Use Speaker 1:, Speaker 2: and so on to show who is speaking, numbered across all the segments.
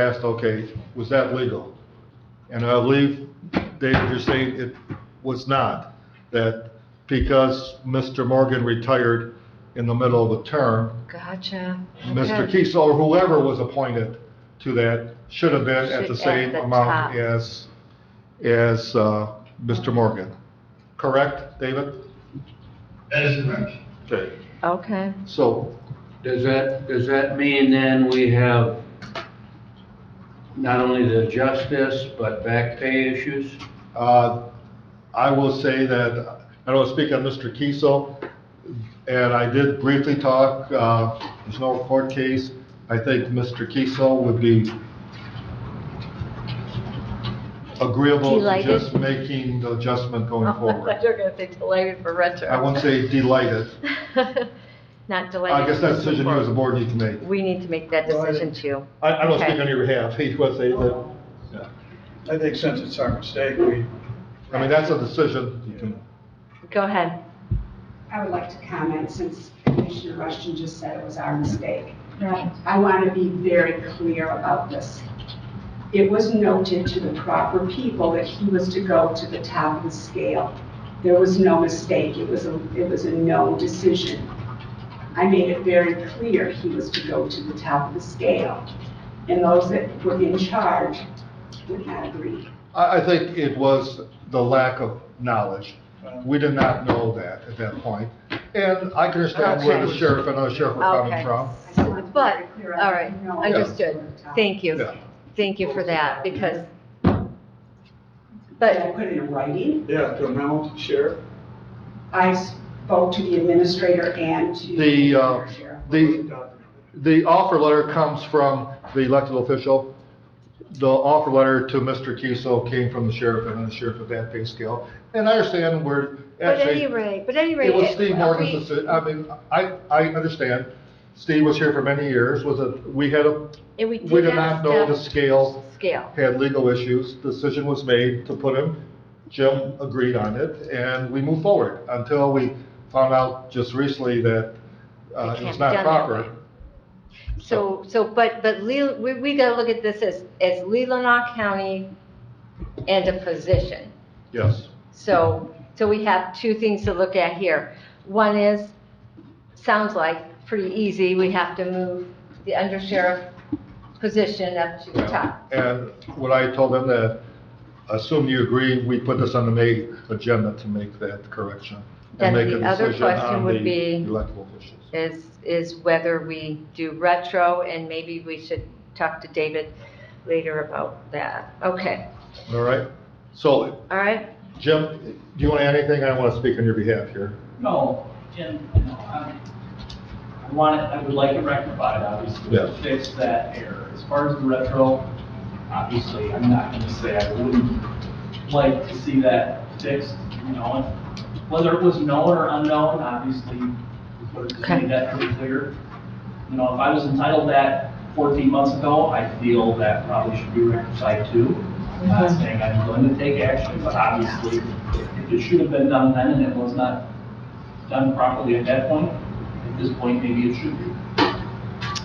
Speaker 1: asked, okay, was that legal? And I believe, David, you're saying it was not, that because Mr. Morgan retired in the middle of the term,
Speaker 2: Gotcha.
Speaker 1: Mr.
Speaker 2: Okay.
Speaker 1: Kiesel, or whoever was appointed to that, should have been at the
Speaker 2: Should- at
Speaker 1: same
Speaker 2: the top.
Speaker 1: amount as, as uh, Mr. Morgan. Correct, David?
Speaker 3: That is correct.
Speaker 1: Okay.
Speaker 2: Okay.
Speaker 1: So,
Speaker 4: Does that, does that mean then we have not only to adjust this, but back pay issues?
Speaker 1: uh, I will say that, I don't speak on Mr. Kiesel, and I did briefly talk, uh, there's no court case. I think Mr. Kiesel would be agreeable to
Speaker 2: Delighted. Oh.
Speaker 1: just making the adjustment going forward.
Speaker 2: You're gonna say delighted for retro.
Speaker 1: I won't say delighted.
Speaker 2: Not delighted.
Speaker 1: I guess that decision you as a board need to make.
Speaker 2: We need to make that
Speaker 5: Well, I-
Speaker 2: decision too.
Speaker 1: I, I don't speak
Speaker 2: Okay.
Speaker 1: on your behalf, you want to say that. yeah.
Speaker 5: I think since it's our mistake, we,
Speaker 1: I mean, that's a decision you can,
Speaker 2: Go ahead.
Speaker 6: I would like to comment, since Commissioner Rushton just said it was our mistake.
Speaker 2: Right.
Speaker 6: I want to be very clear about this. It was noted to the proper people that he was to go to the top of the scale. There was no mistake, it was a, it was a no decision. I made it very clear he was to go to the top of the scale, and those that were in charge would not agree.
Speaker 1: I, I think it was the lack of knowledge. We did not know that at that point. And I can understand where the
Speaker 2: Okay.
Speaker 1: sheriff and other sheriff are coming
Speaker 2: Okay.
Speaker 1: from.
Speaker 6: I just want to be
Speaker 2: But,
Speaker 6: very clear. I
Speaker 2: all right,
Speaker 6: know it was
Speaker 2: understood.
Speaker 6: to the top.
Speaker 2: Thank you.
Speaker 1: Yeah.
Speaker 2: Thank you for that because,
Speaker 6: Did I
Speaker 2: but,
Speaker 6: put it in writing?
Speaker 5: yeah, to a memo, sheriff.
Speaker 6: I spoke to the administrator and to.
Speaker 1: The, uh,
Speaker 6: Sheriff.
Speaker 1: the, the offer letter comes from the elected official. The offer letter to Mr. Kiesel came from the sheriff and the sheriff of that pay scale. And I understand where,
Speaker 2: but
Speaker 1: actually.
Speaker 2: any rate, but any rate.
Speaker 1: It was Steve
Speaker 2: are we-
Speaker 1: Morgan's decision, I mean, I, I understand, Steve was here for many years, was a, we had a,
Speaker 2: And we
Speaker 1: we did not know the
Speaker 2: step-
Speaker 1: scale,
Speaker 2: Scale.
Speaker 1: had legal issues, decision was made to put him, Jim agreed on it, and we moved forward, until we found out just recently that, uh,
Speaker 2: It can't
Speaker 1: it's
Speaker 2: be
Speaker 1: not
Speaker 2: done that
Speaker 1: proper.
Speaker 2: So, so, but, but Lel- we, we gotta look at this as, as Leelanau County and a position.
Speaker 1: Yes,
Speaker 2: So, so we have two things to look at here. One is, sounds like pretty easy, we have to move the undersheriff position up to the top.
Speaker 1: and what I told them that, assume you agree, we put this on the May agenda to make that correction.
Speaker 2: Then
Speaker 1: and make
Speaker 2: the
Speaker 1: a
Speaker 2: other
Speaker 1: decision
Speaker 2: question
Speaker 1: on
Speaker 2: would
Speaker 1: the
Speaker 2: be-
Speaker 1: Elected officials.
Speaker 2: Is, is whether we do retro, and maybe we should talk to David later about that. Okay,
Speaker 1: All right, so
Speaker 2: all right?
Speaker 1: Jim, do you want to add anything? I want to speak on your behalf here.
Speaker 7: No, Jim, no, I, I want it, I would like it rectified, obviously,
Speaker 1: Yeah.
Speaker 7: to fix that error. As far as the retro, obviously, I'm not gonna say I wouldn't like to see that fixed, you know, and whether it was known or unknown, obviously, we could have just
Speaker 2: Okay.
Speaker 7: made that pretty clear. You know, if I was entitled that fourteen months ago, I feel that probably should be rectified too. I'm not saying I'm going to take action, but obviously, if it should have been done then and it was not done properly at that point. At this point, maybe it should be.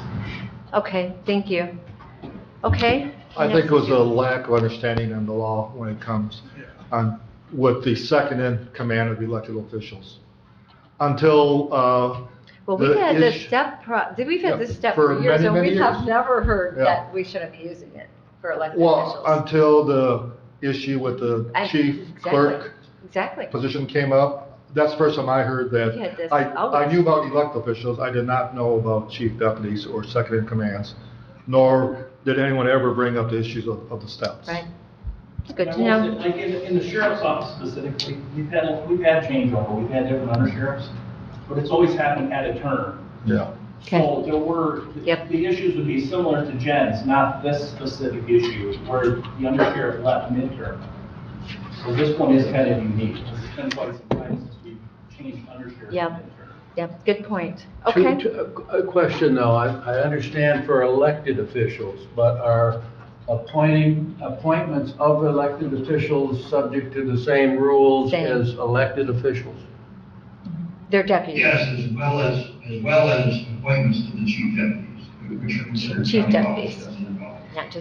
Speaker 2: Okay, thank you. Okay?
Speaker 1: I think it
Speaker 2: next.
Speaker 1: was a lack of understanding in the law when it comes on with the second in command of elected officials. Until, uh,
Speaker 2: Well, we've
Speaker 1: the
Speaker 2: had this
Speaker 1: ish-
Speaker 2: step, pro- did- we've had
Speaker 1: Yeah,
Speaker 2: this step
Speaker 1: for
Speaker 2: for years,
Speaker 1: many,
Speaker 2: and
Speaker 1: many
Speaker 2: we have
Speaker 1: years.
Speaker 2: never heard
Speaker 1: Yeah.
Speaker 2: that we shouldn't be using it for elected
Speaker 1: well,
Speaker 2: officials.
Speaker 1: until the issue with the
Speaker 2: I-
Speaker 1: chief
Speaker 2: exactly.
Speaker 1: clerk
Speaker 2: Exactly.
Speaker 1: position came up, that's the first time I heard that.
Speaker 2: Yeah, that's
Speaker 1: I,
Speaker 2: always-
Speaker 1: I knew about elected officials, I did not know about chief deputies or second in commands, nor did anyone ever bring up the issues of, of the steps.
Speaker 2: Right. It's good to
Speaker 7: And I will
Speaker 2: know.
Speaker 7: say, Like in, in the sheriff's office specifically, we've had, we've had changeover, we've had different undersheriffs, but it's always happened at a turn.
Speaker 1: Yeah.
Speaker 7: So there were,
Speaker 2: Yep.
Speaker 7: the issues would be similar to Jen's, not this specific issue where the undersheriff left midterm. So this one is kind of unique. It's been quite some time since we've changed undersheriff
Speaker 2: Yep.
Speaker 7: midterm.
Speaker 2: Yep, good point.
Speaker 4: Two-
Speaker 2: Okay.
Speaker 4: two- a- A question though, I, I understand for elected officials, but are appointing, appointments of elected officials subject to the same rules
Speaker 2: Same.
Speaker 4: as elected officials?
Speaker 2: They're deputies.
Speaker 3: Yes, as well as, as well as appointments to the chief deputies.
Speaker 2: Chief deputies. Not just